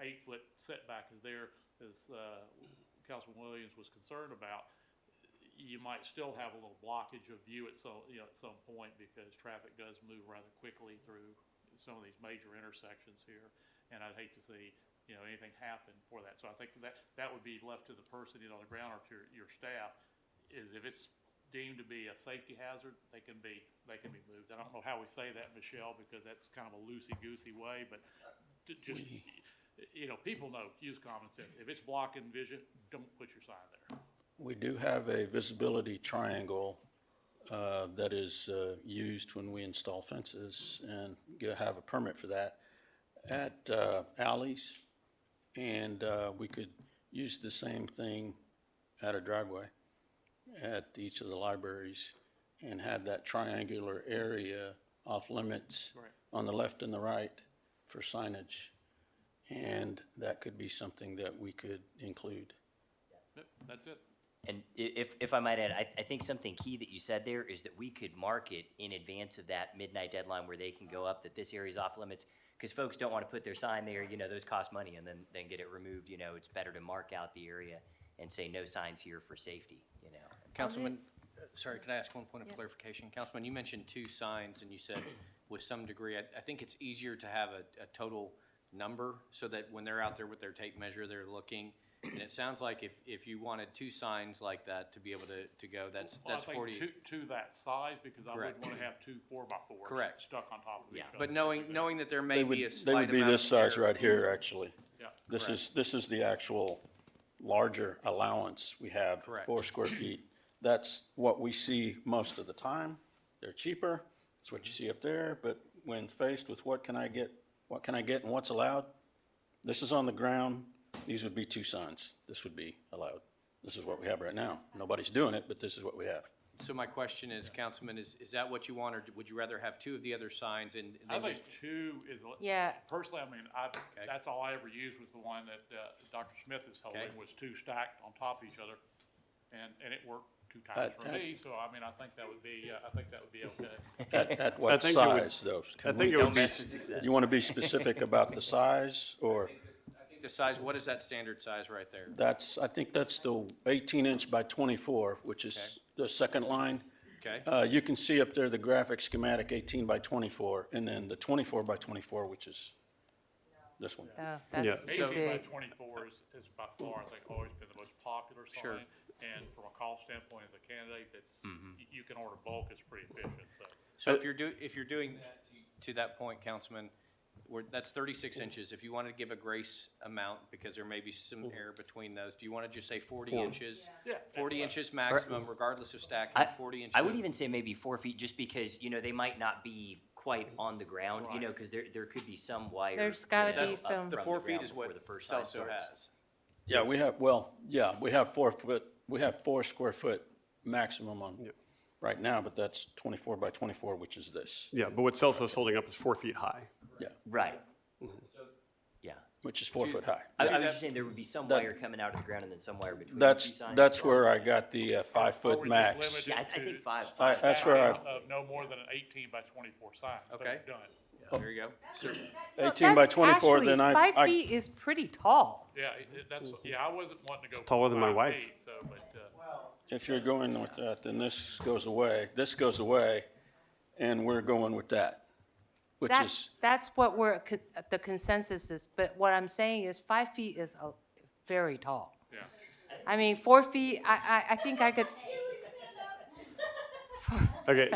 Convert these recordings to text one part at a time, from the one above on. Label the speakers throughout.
Speaker 1: eight-foot setback is there, as uh, Councilman Williams was concerned about, you might still have a little blockage of view at some, you know, at some point because traffic does move rather quickly through some of these major intersections here. And I'd hate to see, you know, anything happen for that. So I think that, that would be left to the person, you know, on the ground or to your, your staff, is if it's deemed to be a safety hazard, they can be, they can be moved. I don't know how we say that, Michelle, because that's kind of a loosey-goosey way, but ju- just, you know, people know, use common sense. If it's blocking vision, don't put your sign there.
Speaker 2: We do have a visibility triangle uh, that is uh, used when we install fences and you have a permit for that at uh, alleys. And uh, we could use the same thing at a driveway at each of the libraries and have that triangular area off limits
Speaker 1: Right.
Speaker 2: on the left and the right for signage. And that could be something that we could include.
Speaker 1: Yep, That's it.
Speaker 3: And i- if, if I might add, I, I think something key that you said there is that we could mark it in advance of that midnight deadline where they can go up, that this area's off limits, because folks don't want to put their sign there, you know, those cost money, and then, then get it removed, you know, it's better to mark out the area and say no signs here for safety, you know.
Speaker 4: Councilman, uh, sorry, could I ask one point of
Speaker 5: Yeah.
Speaker 4: clarification? Councilman, you mentioned two signs, and you said with some degree, I, I think it's easier to have a, a total number so that when they're out there with their tape measure, they're looking. And it sounds like if, if you wanted two signs like that to be able to, to go, that's,
Speaker 1: Well, I
Speaker 4: that's
Speaker 1: think
Speaker 4: forty.
Speaker 1: To, to that size, because I wouldn't
Speaker 4: Correct.
Speaker 1: want to have two four by fours.
Speaker 4: Correct.
Speaker 1: Stuck on top of each
Speaker 3: Yeah.
Speaker 1: other.
Speaker 4: But knowing, knowing that there may
Speaker 2: They would,
Speaker 4: be a
Speaker 2: they
Speaker 4: slight
Speaker 2: would be
Speaker 4: amount
Speaker 2: this
Speaker 4: of
Speaker 2: size
Speaker 4: error-
Speaker 2: right here, actually.
Speaker 1: Yeah,
Speaker 2: This
Speaker 4: Correct.
Speaker 2: is, this is the actual larger allowance we have.
Speaker 4: Correct.
Speaker 2: Four square feet. That's what we see most of the time. They're cheaper. It's what you see up there. But when faced with what can I get, what can I get and what's allowed? This is on the ground. These would be two signs. This would be allowed. This is what we have right now. Nobody's doing it, but this is what we have.
Speaker 4: So my question is, Councilman, is, is that what you want, or would you rather have two of the other signs and? and
Speaker 1: I
Speaker 4: then
Speaker 1: think
Speaker 4: just-
Speaker 1: two is, a-
Speaker 5: Yeah.
Speaker 1: personally, I mean, I, that's all I ever used was the one that, uh, Dr. Smith is holding,
Speaker 4: Okay.
Speaker 1: was two stacked on top of each other. And, and it worked two times for
Speaker 2: I-
Speaker 1: me, so I mean, I think that would be, uh, I think that would be okay.
Speaker 2: At, at what
Speaker 6: think it would-
Speaker 2: size though? Can
Speaker 6: I think
Speaker 2: we-
Speaker 6: it would
Speaker 3: Don't
Speaker 6: be,
Speaker 3: mess with success.
Speaker 2: You want to be specific about the size or?
Speaker 4: I think The size, what is that standard size right there?
Speaker 2: That's, I think that's the 18 inch by 24, which is the second line.
Speaker 4: Okay?
Speaker 2: Uh, You can see up there the graphic schematic 18 by 24, and then the 24 by 24, which is this one.
Speaker 5: Oh, that's too
Speaker 1: Eighteen by
Speaker 5: big.
Speaker 1: twenty-four is, is by far, I think, always been the most popular
Speaker 4: Sure. Mm-hmm.
Speaker 1: sign. And from a cost standpoint, as a candidate, that's, you- you can order bulk, it's pretty efficient, so.
Speaker 4: So
Speaker 3: Uh,
Speaker 4: if you're do, if you're doing that, to- to that point, Councilman, we're, that's thirty-six
Speaker 3: Mm-hmm.
Speaker 4: inches. If you wanted to give a grace amount, because there may be some
Speaker 3: Mm-hmm.
Speaker 4: error between those, do you want to just say forty inches?
Speaker 1: Yeah.
Speaker 4: Forty inches maximum, regardless of
Speaker 3: I-
Speaker 4: stacking, forty inches.
Speaker 3: I would even say maybe four feet, just because, you know, they might not be quite on the ground, you know, because there, there could be some wire.
Speaker 5: There's gotta
Speaker 3: you know,
Speaker 5: be
Speaker 3: up from
Speaker 5: some-
Speaker 4: The four feet
Speaker 3: ground
Speaker 4: is
Speaker 3: before
Speaker 4: what
Speaker 3: the first sign
Speaker 4: Celso
Speaker 3: starts.
Speaker 4: has.
Speaker 2: Yeah, we have, well, yeah, we have four foot, we have four square foot maximum on, right now, but that's 24 by 24, which is this.
Speaker 6: yeah, but what Celso's holding up is four feet high.
Speaker 2: Yeah,
Speaker 3: Right.
Speaker 4: Mm-hmm.
Speaker 3: Yeah.
Speaker 2: which is four foot high.
Speaker 3: I, I was
Speaker 4: See, that-
Speaker 3: just saying there would be some
Speaker 2: that-
Speaker 3: wire coming out of the ground and then some wire between. the two
Speaker 2: That's,
Speaker 3: signs.
Speaker 2: that's where I got the uh, five
Speaker 1: Or
Speaker 2: foot
Speaker 1: we just
Speaker 2: max.
Speaker 1: limit it
Speaker 3: Yeah, I, I
Speaker 1: to-
Speaker 3: think five.
Speaker 2: I- That's where I,
Speaker 1: Of no more than an eighteen by twenty-four sign.
Speaker 4: Okay.
Speaker 1: Done.
Speaker 3: Oh.
Speaker 4: There you go. So-
Speaker 2: 18 by 24, then I. I-
Speaker 5: Five feet is pretty tall.
Speaker 1: Yeah, it- it- that's, yeah, I wasn't wanting to go.
Speaker 6: taller than my
Speaker 1: five
Speaker 6: wife.
Speaker 1: feet, So, but, uh,
Speaker 2: If you're going with that, then this goes away, this goes away, and we're going with that, which
Speaker 5: That,
Speaker 2: is,
Speaker 5: that's what we're, co- the consensus is, but what I'm saying is five feet is uh, very tall.
Speaker 1: yeah.
Speaker 5: I mean, four feet, I, I, I think I could,
Speaker 6: Okay,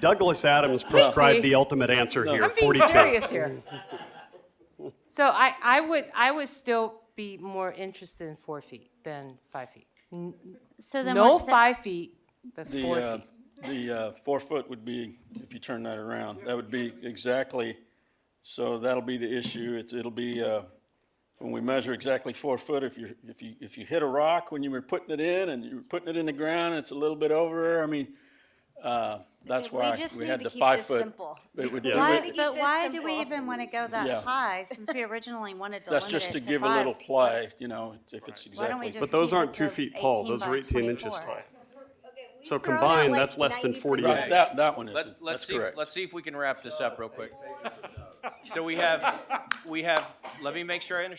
Speaker 6: Douglas Adams prescribed the ultimate answer here,
Speaker 5: I'm being
Speaker 6: 42.
Speaker 5: serious here. So I, I would, I would still be more interested in four feet than five feet.
Speaker 7: So then
Speaker 5: No
Speaker 7: we're sa-
Speaker 5: five feet, but
Speaker 2: the,
Speaker 5: four
Speaker 2: uh,
Speaker 5: feet.
Speaker 2: the uh, four foot would be, if you turn that around, that would be exactly, so that'll be the issue, It's it'll be, uh, when we measure exactly four foot, if you're, if you, if you hit a rock when you were putting it in, and you were putting it in the ground, and it's a little bit over, I mean, uh, that's
Speaker 7: We
Speaker 2: why
Speaker 7: just
Speaker 2: we
Speaker 7: need
Speaker 2: had
Speaker 7: to
Speaker 2: the
Speaker 7: keep
Speaker 2: five
Speaker 7: this
Speaker 2: foot.
Speaker 7: simple.
Speaker 2: It would-
Speaker 6: Yeah.
Speaker 2: it
Speaker 7: Why,
Speaker 2: would-
Speaker 7: but
Speaker 8: this
Speaker 7: why do
Speaker 8: simple.
Speaker 7: we even want to go that
Speaker 2: Yeah.
Speaker 7: high since we originally wanted to
Speaker 2: That's
Speaker 7: limit
Speaker 2: just
Speaker 7: it
Speaker 2: to
Speaker 7: to
Speaker 2: give a little
Speaker 7: five?
Speaker 2: play, you know, if it's
Speaker 7: Why don't we
Speaker 2: exactly.
Speaker 7: just
Speaker 6: But those
Speaker 7: keep it
Speaker 6: aren't two
Speaker 7: to
Speaker 6: feet tall,
Speaker 7: 18
Speaker 6: those
Speaker 7: by
Speaker 6: are 18 inches
Speaker 7: 24?
Speaker 6: tall. So
Speaker 8: So
Speaker 6: combined,
Speaker 8: combined, that's less than 40
Speaker 6: Right.
Speaker 2: Right, that, that one isn't,
Speaker 4: Let, let's
Speaker 2: that's
Speaker 4: see,
Speaker 2: correct.
Speaker 4: let's see if we can wrap this up real quick. So we have, we have, let me make sure I understand